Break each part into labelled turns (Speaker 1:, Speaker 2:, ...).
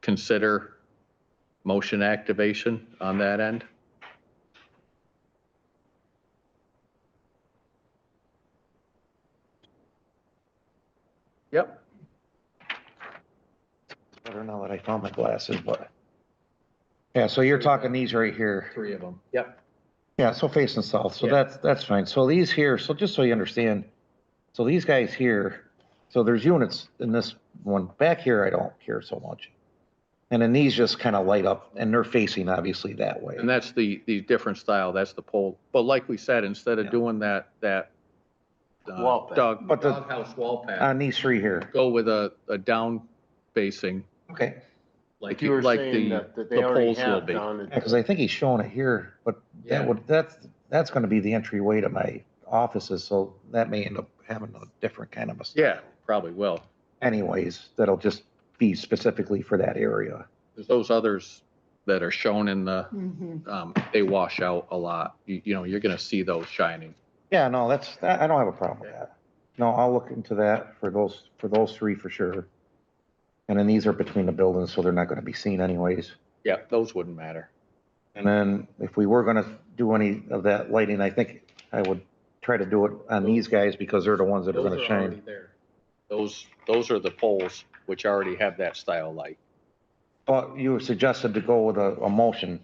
Speaker 1: consider motion activation on that end? Yep.
Speaker 2: I don't know that I found my glasses, but. Yeah, so you're talking these right here.
Speaker 1: Three of them. Yep.
Speaker 2: Yeah, so facing south, so
Speaker 1: Yeah.
Speaker 2: that's, that's fine. So these here, so just so you understand, so these guys here, so there's units in this one. Back here, I don't care so much. And then these just kind of light up and they're facing obviously that way.
Speaker 1: And that's the, the different style, that's the pole. But like we said, instead of
Speaker 2: Yeah.
Speaker 1: doing that, that uh,
Speaker 3: Wall pack.
Speaker 1: dog,
Speaker 2: But the- Uh,
Speaker 1: doghouse wall pack,
Speaker 2: On these three here,
Speaker 1: go with a, a down facing,
Speaker 2: okay,
Speaker 1: like,
Speaker 3: Like you were
Speaker 1: like
Speaker 3: saying
Speaker 1: the,
Speaker 3: that, that
Speaker 1: the
Speaker 3: they already
Speaker 1: polls will
Speaker 3: have
Speaker 1: be.
Speaker 3: down at-
Speaker 2: because I think he's showing it here, but that
Speaker 1: Yeah.
Speaker 2: would, that's, that's gonna be the entryway to my offices, so that may end up having a different kind of a.
Speaker 1: yeah, probably will.
Speaker 2: anyways, that'll just be specifically for that area.
Speaker 1: There's Those others that are shown in the,
Speaker 4: Mhm.
Speaker 5: Mm-hmm.
Speaker 1: um, they wash out a lot. You, you know, you're gonna see those shining.
Speaker 2: Yeah, no, that's, I I don't have a problem with that. No, I'll look into that for those, for those three for sure. And then these are between the buildings, so they're not gonna be seen anyways.
Speaker 1: Yeah, those wouldn't matter.
Speaker 2: And then if we were gonna do any of that lighting, I think I would try to do it on these guys because they're the ones that are gonna shine.
Speaker 1: Those, those are the poles which already have that style light.
Speaker 2: But you suggested to go with a, a motion,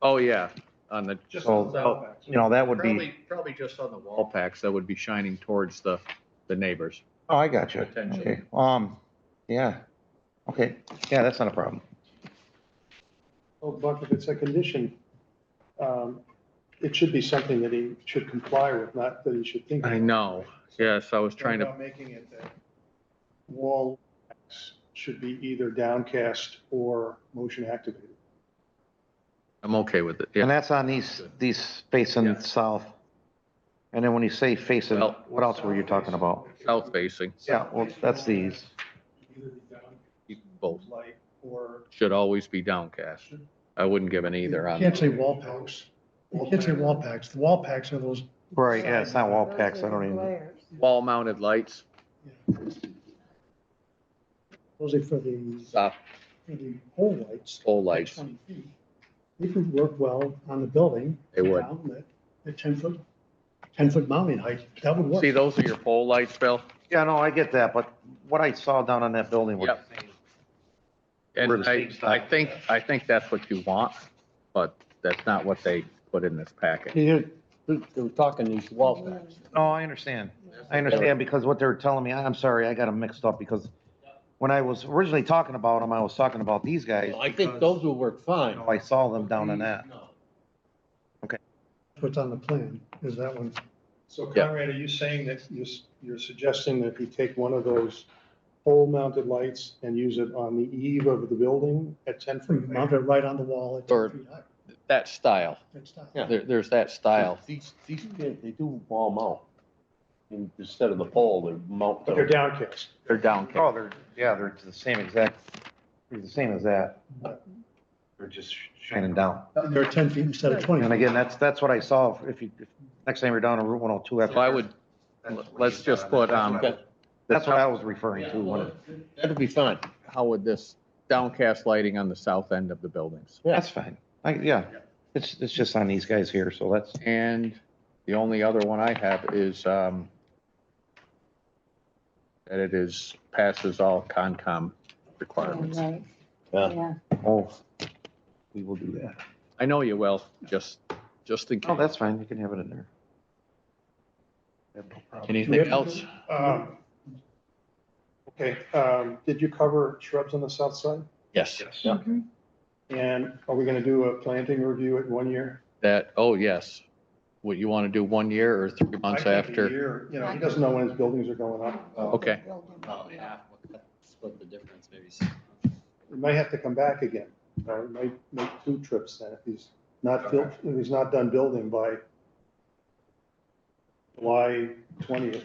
Speaker 1: Oh, yeah, on the, just
Speaker 2: So- you know, that would be,
Speaker 1: probably, probably just on the wall packs that would be shining towards the, the neighbors.
Speaker 2: oh, I got you.
Speaker 1: Potential.
Speaker 2: Okay, um, yeah, okay, yeah, that's not a problem.
Speaker 6: Oh, Buck, if it's a condition, um, it should be something that he should comply with, not that he should think.
Speaker 1: I know, yes, I was trying to,
Speaker 6: About Making it that wall lights should be either downcast or motion activated.
Speaker 1: I'm okay with it,
Speaker 2: And
Speaker 1: yeah.
Speaker 2: that's on these, these
Speaker 1: Yeah.
Speaker 2: facing south. And then when you say facing,
Speaker 1: Well-
Speaker 2: what else were you talking about?
Speaker 1: South facing,
Speaker 2: Yeah, well, that's these.
Speaker 6: Either be
Speaker 1: both
Speaker 6: down light or.
Speaker 1: should always be downcast. I wouldn't give an either
Speaker 5: You
Speaker 1: on.
Speaker 5: can't say wall packs. You can't say wall packs. The wall packs are those,
Speaker 2: Right, yeah, it's not wall packs, I don't
Speaker 4: Those
Speaker 2: even,
Speaker 4: are the
Speaker 1: Wall mounted lights,
Speaker 5: those are for the,
Speaker 1: soft
Speaker 5: for the pole lights.
Speaker 1: pole lights,
Speaker 5: 20 feet. They could work well on the building.
Speaker 1: they would.
Speaker 5: down at- At ten foot, ten foot mounting height. That would work.
Speaker 1: See, those are your pole lights, Bill?
Speaker 2: yeah, no, I get that, but what I saw down on that building was,
Speaker 1: Yep. And I, I think, I think that's what you want, but that's not what they put in this packet.
Speaker 3: They were talking these wall packs.
Speaker 2: no, I understand. I understand, because what they were telling me, I'm sorry, I got them mixed up, because when I was originally talking about them, I was talking about these guys.
Speaker 3: I think
Speaker 2: because,
Speaker 3: those will work
Speaker 2: you
Speaker 3: fine.
Speaker 2: know, I saw them down in that.
Speaker 5: What's on the plan is that one.
Speaker 6: So
Speaker 1: Yeah.
Speaker 6: Conrad, are you saying that you're, s- you're suggesting that he take one of those pole mounted lights and use it on the eve of the building at ten foot?
Speaker 5: Mount it right on the wall at
Speaker 1: Or-
Speaker 5: ten feet high.
Speaker 1: That style,
Speaker 5: That's not-
Speaker 3: Yeah.
Speaker 1: there, there's that style.
Speaker 3: These, these, they they do wall mount. And Instead of the pole, they mount.
Speaker 6: But they're
Speaker 3: them.
Speaker 6: downcast.
Speaker 1: They're downcast.
Speaker 2: Oh, they're, yeah, they're the same exact, they're the same as that. They're just shining down.
Speaker 5: They're ten feet instead of twenty.
Speaker 2: And again, that's, that's what I saw, if you, if- next time you're down on Route 102. after-
Speaker 1: So I would, let's just put, um,
Speaker 2: That's what I was referring to, when it-
Speaker 3: That'd be fine.
Speaker 1: how would this downcast lighting on the south end of the buildings?
Speaker 2: that's fine, I, yeah, it's, it's just on these guys here, so that's,
Speaker 1: And the only other one I have is, um, that it is, passes all Concom
Speaker 4: Polaris.
Speaker 1: requirements.
Speaker 4: Yeah, right,
Speaker 3: Yeah.
Speaker 4: yeah.
Speaker 2: oh, we will do that.
Speaker 1: I know you will, just, just in
Speaker 2: Oh,
Speaker 1: case.
Speaker 2: that's fine, you can have it in there. I have no problem.
Speaker 1: Anything else?
Speaker 6: Um, Okay, um, did you cover shrubs on the south side?
Speaker 1: Yes.
Speaker 4: Mhm.
Speaker 6: And are we gonna do a planting review at one year?
Speaker 1: That, oh, yes. What, you want to do one year or three months
Speaker 6: I think a
Speaker 1: after?
Speaker 6: year, You know, he doesn't know when his buildings are going up.
Speaker 1: Okay.
Speaker 7: Probably half, split the difference, maybe.
Speaker 6: We might have to come back again, or we might make two trips then if he's not, built- if he's not done building by July twentieth.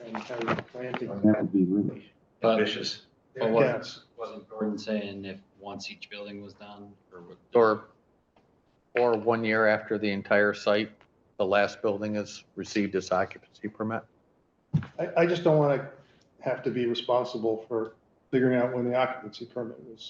Speaker 6: And have the planting.
Speaker 2: That would be really
Speaker 7: But
Speaker 2: vicious.
Speaker 7: But what-
Speaker 6: Yes.
Speaker 7: wasn't Gordon saying if once each building was done or what?
Speaker 1: Or, or one year after the entire site, the last building has received its occupancy permit?
Speaker 6: I, I just don't wanna have to be responsible for figuring out when the occupancy permit was